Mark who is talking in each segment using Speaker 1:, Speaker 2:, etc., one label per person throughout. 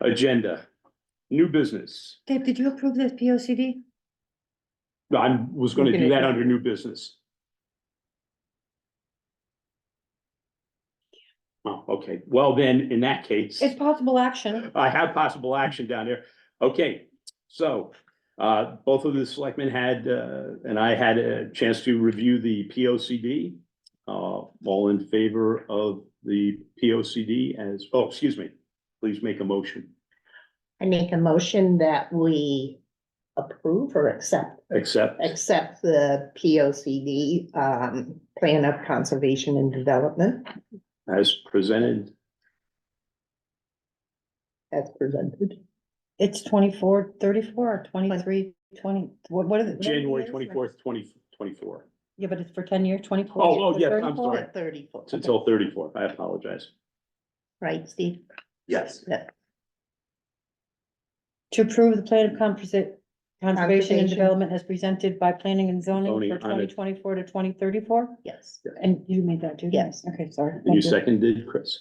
Speaker 1: Agenda, new business.
Speaker 2: Dave, did you approve this P O C D?
Speaker 1: I was gonna do
Speaker 2: Looking at
Speaker 1: that
Speaker 2: you.
Speaker 1: under new business. Oh, okay. Well, then, in that case,
Speaker 2: It's possible action.
Speaker 1: I have possible action down here. Okay, so uh, both of the selectmen had, uh, and I had a chance to review the P O C D. Uh, all in favor of the P O C D as, oh, excuse me, please make a motion.
Speaker 3: I make a motion that we approve or accept,
Speaker 1: Accept.
Speaker 3: accept the P O C D, um, Plan of Conservation and Development
Speaker 1: as presented.
Speaker 3: as presented.
Speaker 2: It's twenty-four, thirty-four, or twenty-three, twenty, what, what are the?
Speaker 1: January twenty-fourth, twenty twenty-four,
Speaker 2: Yeah, but it's for ten years, twenty-four.
Speaker 1: Oh, oh, yes, I'm sorry.
Speaker 3: Thirty-four,
Speaker 1: until thirty-four, I apologize.
Speaker 3: right, Steve?
Speaker 1: Yes.
Speaker 3: Yeah.
Speaker 2: To approve the plan of conservation, conservation
Speaker 3: Conservation.
Speaker 2: and development as presented by planning and zoning
Speaker 1: Zoning on
Speaker 2: for
Speaker 1: it.
Speaker 2: twenty twenty-four to twenty thirty-four?
Speaker 3: Yes.
Speaker 2: And you made that too? didn't you?
Speaker 3: Yes.
Speaker 2: Okay, sorry.
Speaker 1: You
Speaker 2: Thank
Speaker 1: seconded, Chris.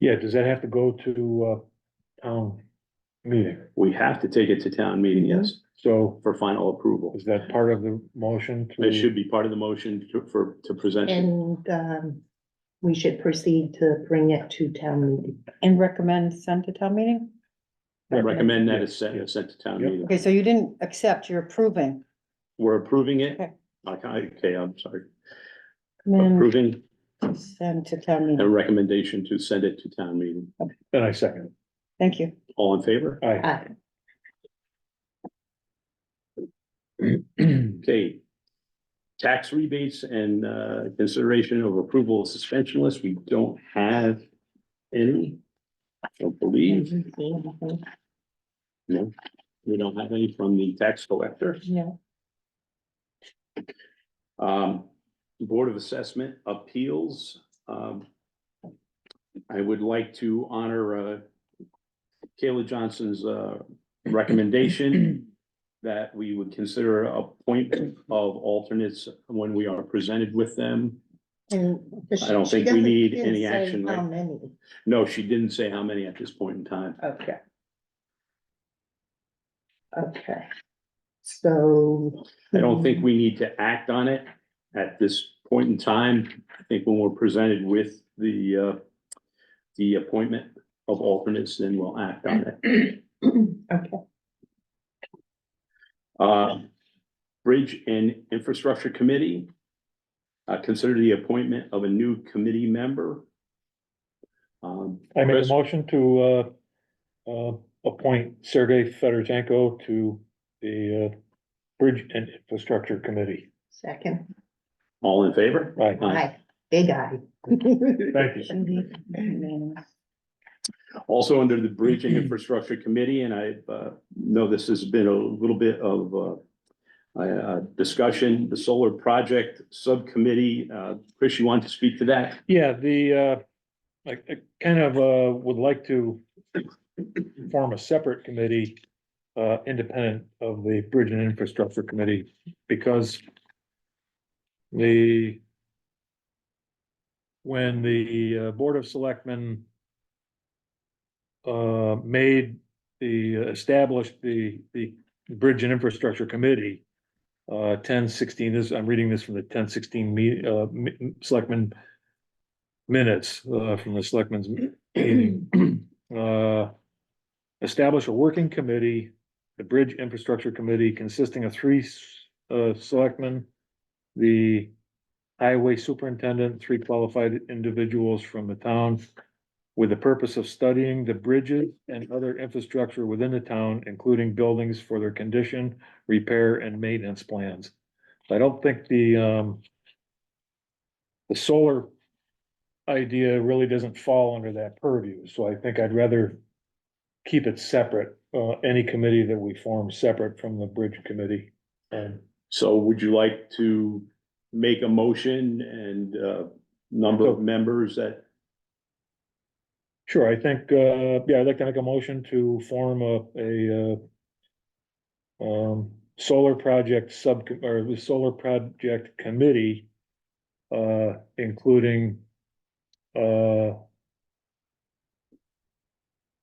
Speaker 4: Yeah, does that have to go to uh town meeting?
Speaker 1: We have to take it to town meeting, yes,
Speaker 4: Mm-hmm. So
Speaker 1: for final approval.
Speaker 4: is that part of the motion to?
Speaker 1: It should be part of the motion to, for, to present. it.
Speaker 3: And, um, we should proceed to bring it to town meeting.
Speaker 2: And recommend send to town meeting?
Speaker 1: I recommend that it's sent,
Speaker 4: Yeah.
Speaker 1: it's sent to town
Speaker 4: Yeah.
Speaker 1: meeting.
Speaker 2: Okay, so you didn't accept, you're approving.
Speaker 1: We're approving it.
Speaker 2: Okay.
Speaker 1: Okay, okay, I'm sorry.
Speaker 2: Recommend
Speaker 1: Approving
Speaker 2: Send to town
Speaker 1: a
Speaker 2: meeting.
Speaker 1: recommendation to send it to town meeting.
Speaker 4: And I second.
Speaker 2: Thank you.
Speaker 1: All in favor?
Speaker 4: Aye.
Speaker 3: Uh,
Speaker 1: Okay. Tax rebates and, uh, consideration of approval of suspension list. We don't have any. I don't believe. No, we don't have any from the tax collector.
Speaker 2: No.
Speaker 1: Um, Board of Assessment Appeals, um. I would like to honor, uh, Kayla Johnson's, uh, recommendation. That we would consider appointment of alternates when we are presented with them.
Speaker 3: and- but
Speaker 1: I
Speaker 3: she-
Speaker 1: don't
Speaker 3: she
Speaker 1: think we
Speaker 3: doesn't-
Speaker 1: need
Speaker 3: didn't
Speaker 1: any
Speaker 3: say
Speaker 1: action,
Speaker 3: How
Speaker 1: right?
Speaker 3: many?
Speaker 1: No, she didn't say how many at this point in time.
Speaker 3: Okay. Okay. So.
Speaker 1: I don't
Speaker 3: Hmm.
Speaker 1: think we need to act on it at this point in time. I think when we're presented with the, uh, the appointment of alternates, then we'll act on it.
Speaker 3: Okay,
Speaker 1: Uh, Bridge and Infrastructure Committee. Uh, consider the appointment of a new committee member. Um,
Speaker 4: I make a
Speaker 1: Chris,
Speaker 4: motion to uh uh appoint Sergey Fedorchenko to the uh Bridge and Infrastructure Committee.
Speaker 3: second,
Speaker 1: all in favor?
Speaker 4: Aye.
Speaker 3: aye, big aye.
Speaker 4: Thank you.
Speaker 1: Also under the Bridge and Infrastructure Committee, and I, uh, know this has been a little bit of, uh, uh, discussion, the solar project subcommittee, uh, Chris, you want to speak to that?
Speaker 4: Yeah, the, uh, like, I kind of, uh, would like to form a separate committee, uh, independent of the Bridge and Infrastructure Committee, because the when the uh, Board of Selectmen uh, made the, uh, established the, the Bridge and Infrastructure Committee, uh, ten sixteen, this, I'm reading this from the ten sixteen me, uh, m- Selectmen minutes uh, from the selectmen's meeting. Uh, Establish a working committee, the Bridge Infrastructure Committee consisting of three s- uh, selectmen, the highway superintendent, three qualified individuals from the town with the purpose of studying the bridges and other infrastructure within the town, including buildings for their condition, repair and maintenance plans. I don't think the um the solar idea really doesn't fall under that purview, so I think I'd rather keep it separate, uh, any committee that we form separate from the bridge committee. Um, And
Speaker 1: So would you like to make a motion and, uh, number of members that
Speaker 4: sure, I think, uh, yeah, I'd like to make a motion to form a, a, uh, um, solar project sub, or the solar project committee, uh, including, uh,